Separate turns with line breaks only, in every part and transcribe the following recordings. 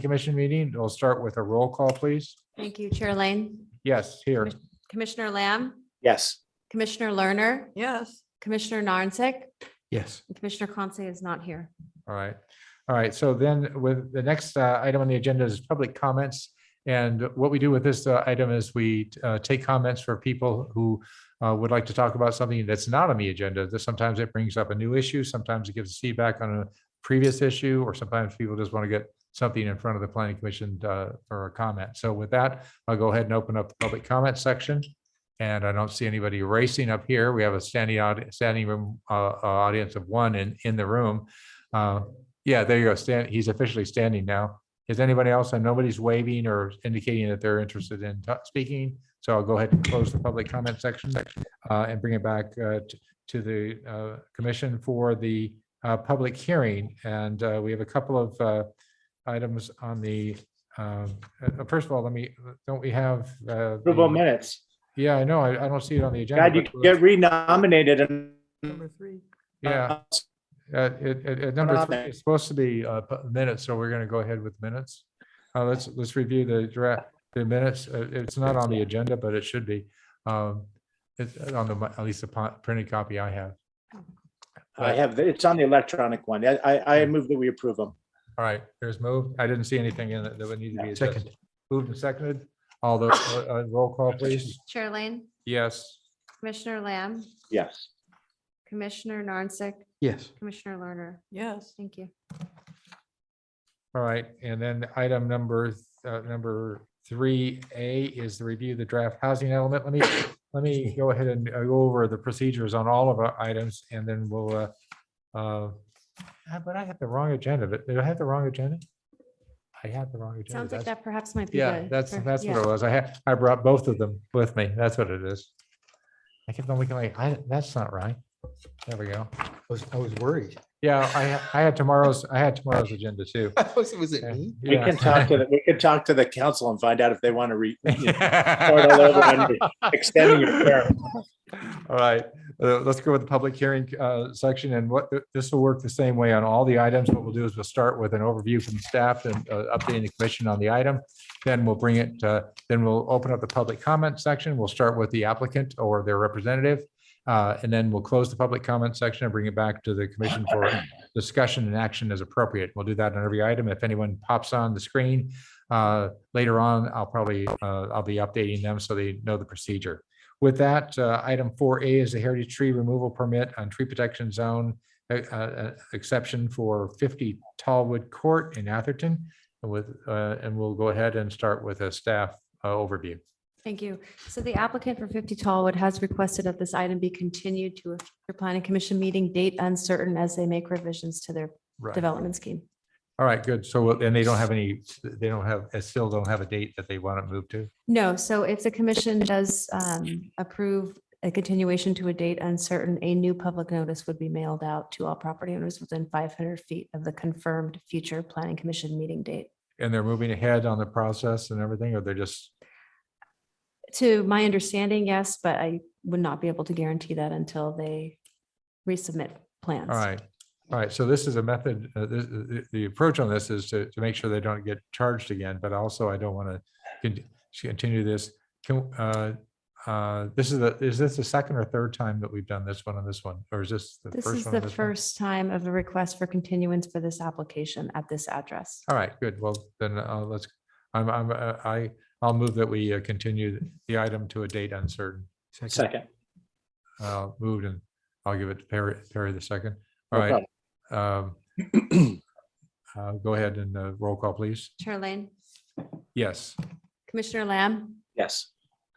commission meeting. We'll start with a roll call, please.
Thank you, Chair Lane.
Yes, here.
Commissioner Lamb,
Yes.
Commissioner Lerner. Yes. Commissioner Narnsick,
Yes.
and Commissioner Conce is not here.
All right. All right. So then with the next uh, item on the agenda is public comments. And what we do with this uh, item is we uh, take comments for people who uh, would like to talk about something that's not on the agenda. That Sometimes it brings up a new issue. Sometimes it gives feedback on a previous issue, or sometimes people just want to get something in front of the planning commission uh, for a comment. So with that, I'll go ahead and open up the public comment section. And I don't see anybody racing up here. We have a standing, aud- standing room, uh, uh, audience of one in, in the room. Uh, Yeah, there you go. Stan, he's officially standing now. Is anybody else? And nobody's waving or indicating that they're interested in ta- speaking. So I'll go ahead and close the public comment section uh, and bring it back uh, t- to the uh, commission for the uh, public hearing. And uh, we have a couple of uh, items on the, um, uh, first of all, let me, don't we have? uh,
Approval
the-
minutes.
yeah, I know. I, I don't see it on the agenda.
God, you
but we'll-
get renominated and.
Yeah, uh, it, it, it- number
on
three
there.
is supposed to be, uh, pu- minutes, so we're gonna go ahead with minutes. Uh, let's, let's review the draft, the minutes. Uh, it's not on the agenda, but it should be. Um, it's on the, at least the po- printed copy I have.
I have, it's on the electronic one. I, I, I move that we approve them.
All right, there's moved. I didn't see anything in it that would need to be
Yeah,
adjusted. Moved and seconded. All the, uh, roll call, please.
Chair Lane,
Yes.
Commissioner Lamb,
Yes.
Commissioner Narnsick,
Yes.
Commissioner Lerner. Yes. Thank you.
All right, and then item number, th- uh, number three A is the review of the draft housing element. Let me, let me go ahead and uh, go over the procedures on all of our items and then we'll, uh, uh, ah, but I have the wrong agenda, but did I have the wrong agenda? I had the wrong agenda.
Sounds like
That's-
that perhaps might be.
Yeah,
the-
that's,
per-
that's what
yeah.
it was. I had, I brought both of them with me. That's what it is. I kept on looking like, I, that's not right. There we go.
I was, I was worried.
Yeah, I, ha- I had tomorrow's, I had tomorrow's agenda too.
Was was it
Yeah.
me?
We
Yeah.
can talk to, the we can talk to the council and find out if they want to re, you know,
Start
start all over and extend your term.
All right, uh, let's go with the public hearing uh, section and what, this will work the same way on all the items. What we'll do is we'll start with an overview from staff and uh, updating the commission on the item. Then we'll bring it, uh, then we'll open up the public comment section. We'll start with the applicant or their representative. uh, And then we'll close the public comment section and bring it back to the commission for discussion and action as appropriate. We'll do that on every item. If anyone pops on the screen uh, later on, I'll probably, uh, I'll be updating them so they know the procedure. With that, uh, item four A is a heritage tree removal permit on tree protection zone uh, uh, exception for fifty Tallwood Court in Atherton. And With, uh, and we'll go ahead and start with a staff uh, overview.
Thank you. So the applicant for 50 Tallwood has requested that this item be continued to a future planning commission meeting date uncertain as they make revisions to their
Right.
development scheme.
All right, good. So, and they don't have any, they don't have, they still don't have a date that they want to move to?
No, so if the commission does um, approve a continuation to a date uncertain, a new public notice would be mailed out to all property owners within 500 feet of the confirmed future planning commission meeting date.
And they're moving ahead on the process and everything, or they're just,
To my understanding, yes, but I would not be able to guarantee that until they resubmit plans.
all right. All right, so this is a method, uh, the, the- the approach on this is to, to make sure they don't get charged again, but also I don't want to continue this. Can, uh, uh, this is the, is this the second or third time that we've done this one on this one, or is this the
This
first one?
is
on
the
this one?
first time of a request for continuance for this application at this address.
All right, good. Well, then uh, let's, I'm, I'm, uh, I, I'll move that we uh, continue the item to a date uncertain.
Second.
Uh, moved and I'll give it to Perry, Perry the second. All
No
right. um, uh, Go ahead and uh, roll call, please.
Chair Lane,
Yes.
Commissioner Lamb,
Yes.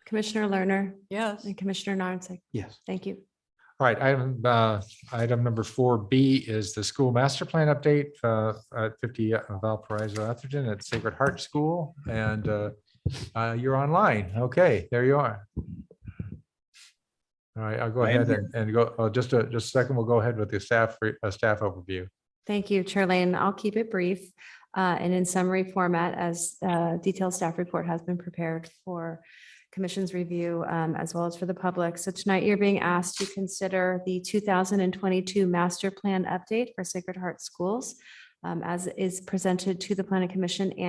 Commissioner Lerner. Yes. And Commissioner Narnsick.
Yes.
Thank you.
All right, item, uh, item number four B is the school master plan update, uh, at fifty Valparaiso Atherton at Sacred Heart School. And, uh, uh, you're online. Okay, there you are. All right, I'll go
I am
ahead and, and go, oh, just a, just a second, we'll go ahead with the staff, re- uh, staff overview.
Thank you, Chair Lane. I'll keep it brief uh, and in summary format as uh, detailed staff report has been prepared for commission's review um, as well as for the public. So tonight you're being asked to consider the 2022 master plan update for Sacred Heart Schools um, as is presented to the planning commission